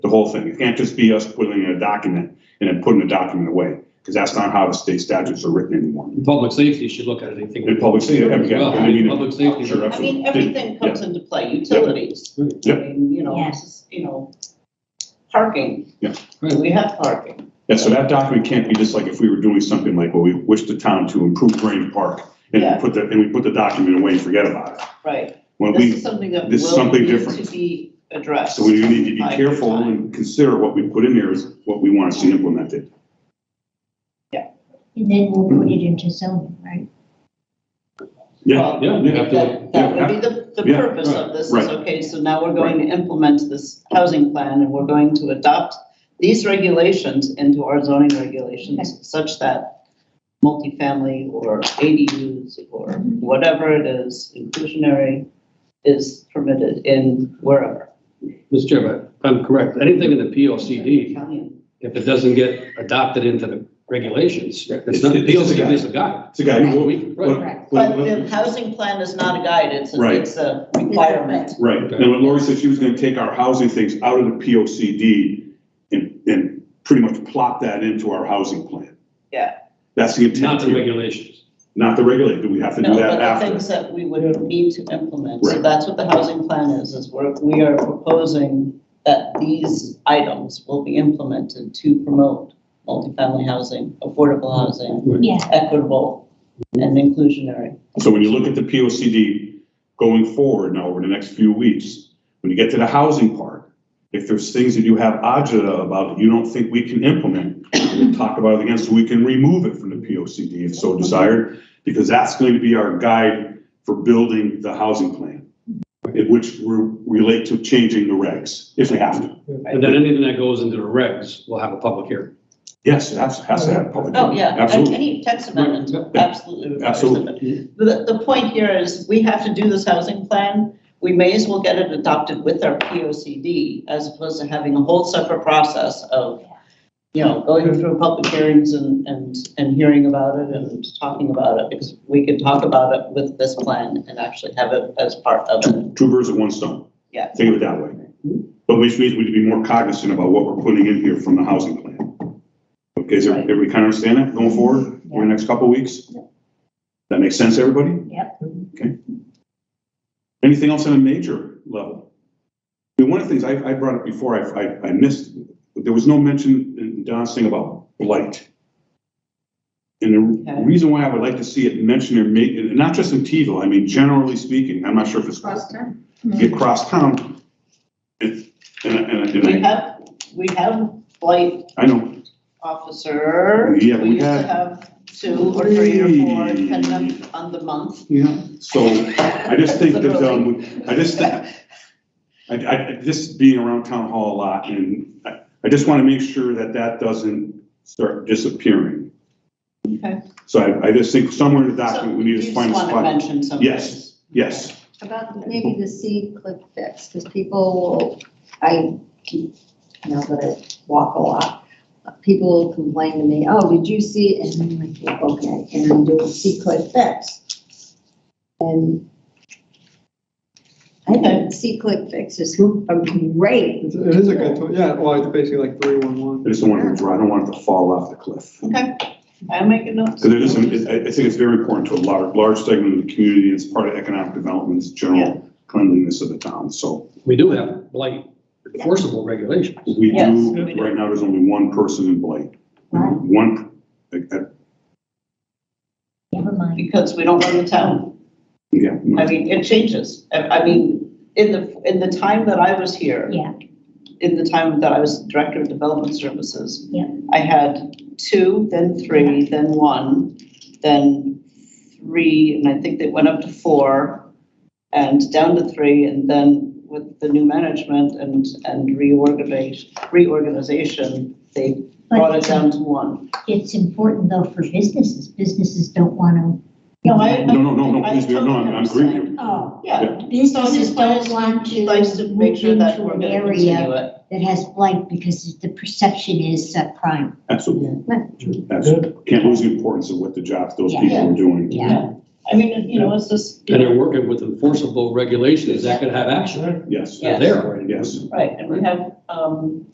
whole thing. It can't just be us putting in a document and then putting the document away, because that's not how the state statutes are written anymore. And Public safety should look at it, I think. And public safety, yeah, yeah, Well, I mean, Public safety. sure, I mean, everything comes into play, utilities, I Yeah. mean, you know, Yes. s- you know, parking. Yeah. Right. We have parking. Yeah, so that document can't be just like if we were doing something like, well, we wish the town to improve Grange Park, and Yeah. we put the, and we put the document away and forget about it. Right. When This is we, something that this is will something need different. to be addressed. so we need to by be careful time. and consider what we put in there is what we want to see implemented. And then we'll put it into zoning, right? Yeah, Well, Yeah, you have to, That, that yeah, would be the, the yeah, purpose of this right. is, okay, so now we're going to implement this housing plan and we're going to adopt these regulations into our zoning regulations such that multifamily or ADUs or whatever it is, inclusionary is permitted in wherever. Mr. Chairman, if I'm correct, anything in the P O C D, Italian. if it doesn't get adopted into the regulations, it's not, It's- P O it's a C D guide. is a guide. it's a guy, Well, well, we- right. Correct. But the housing plan is not a guide, it's, a- Right. it's a requirement. Right, and what Lori said, she was gonna take our housing things out of the P O C D and, and pretty much plop that into our housing plan. Yeah. That's the Not intent the here, regulations. not the regulator, do we have to do No, that but the after? things that we would need to implement, so Right. that's what the housing plan is, is we're, we are proposing that these items will be implemented to promote multifamily housing, affordable housing, Yeah, equitable, and inclusionary. So when you look at the P O C D going forward now over the next few weeks, when you get to the housing part, if there's things that you have agita about that you don't think we can implement, we'll talk about it again, so we can remove it from the P O C D if so desired, because that's going to be our guide for building the housing plan, in which we relate to changing the regs, if we have to. And then anything that goes into the regs will have a public hearing. Yes, it has, has to have public. Oh, yeah, and Absolutely. any text amendment, Right, absolutely. requires Absolutely. amendment. The, the point here is, we have to do this housing plan, we may as well get it adopted with our P O C D, as opposed to having a whole separate process of, you know, going through public hearings and, and, and hearing about it and talking about it, because we could talk about it with this plan and actually have it as part of it, Two birds with one stone. yeah. think of it that way. But which means we'd be more cognizant about what we're putting in here from the housing plan. Okay, is everybody everybody kind of understand that going forward over the next couple of weeks? That makes sense, everybody? yep. Anything else on a major level? I mean, one of the things I, I brought up before, I, I, I missed, but there was no mention in Don's thing about blight. And the Okay. reason why I would like to see it mentioned or made, and not just in Teville, I mean, generally speaking, I'm not sure if it's Mm-hmm. get across town. And, and, and- We and I, have, we have blight I know, officer. Yeah, we used to had- have two or three or four, depending on, on the month. Yeah, so I just think that, um, I just, thi- I, I, just being around town hall a lot and I, I just want to make sure that that doesn't start disappearing. Okay. So I, I just think somewhere in the So document, we need to you find a just wanna spot. mention some Yes. things. Yes, About maybe the C clip fix, because people will, I keep, now that I walk a lot, people will complain to me, oh, did you see, and I'm like, "Yeah, okay, and I'm doing C clip fix. And I think C clip fixes are great, It's- It is a good tool, yeah, well, it's basically like three one one. I just don't want it to dry, I don't want it to fall off the cliff. Okay, I make a note. Because there is, some- I, I think it's very important to a large, large segment of the community. It's part of economic development, it's Yeah. general cleanliness of the town, so. We do have blight enforceable regulations. We Yes, do, we do. right now, there's only one person in Blight. Right. One, uh, uh, Never mind. Because we don't run the town. yeah. I mean, it changes. I, I mean, in the, in the time that I was here, Yeah, in the time that I was Director of Development Services. Yeah. I had two, then three, then one, then three, and I think they went up to four, and down to three, and then with the new management and, and reorganization, reorganization, they brought it but down to one. it's important though for businesses. Businesses don't want to. No, I- No, no, no, no, I please, no, totally I'm I'm agreeing with you. Oh, Yeah. So businesses his plan is don't to- want to Likes to make move sure that into we're an gonna area continue it. that has blight because the perception is uh, crime. Absolutely. Absolutely. Can't lose the importance of what the jobs those Yeah. people are doing. Yeah. I mean, you know, it's just, And they're working with enforceable regulations that could have action. Yes, Yeah. They're there already. yes. right, and we have, um,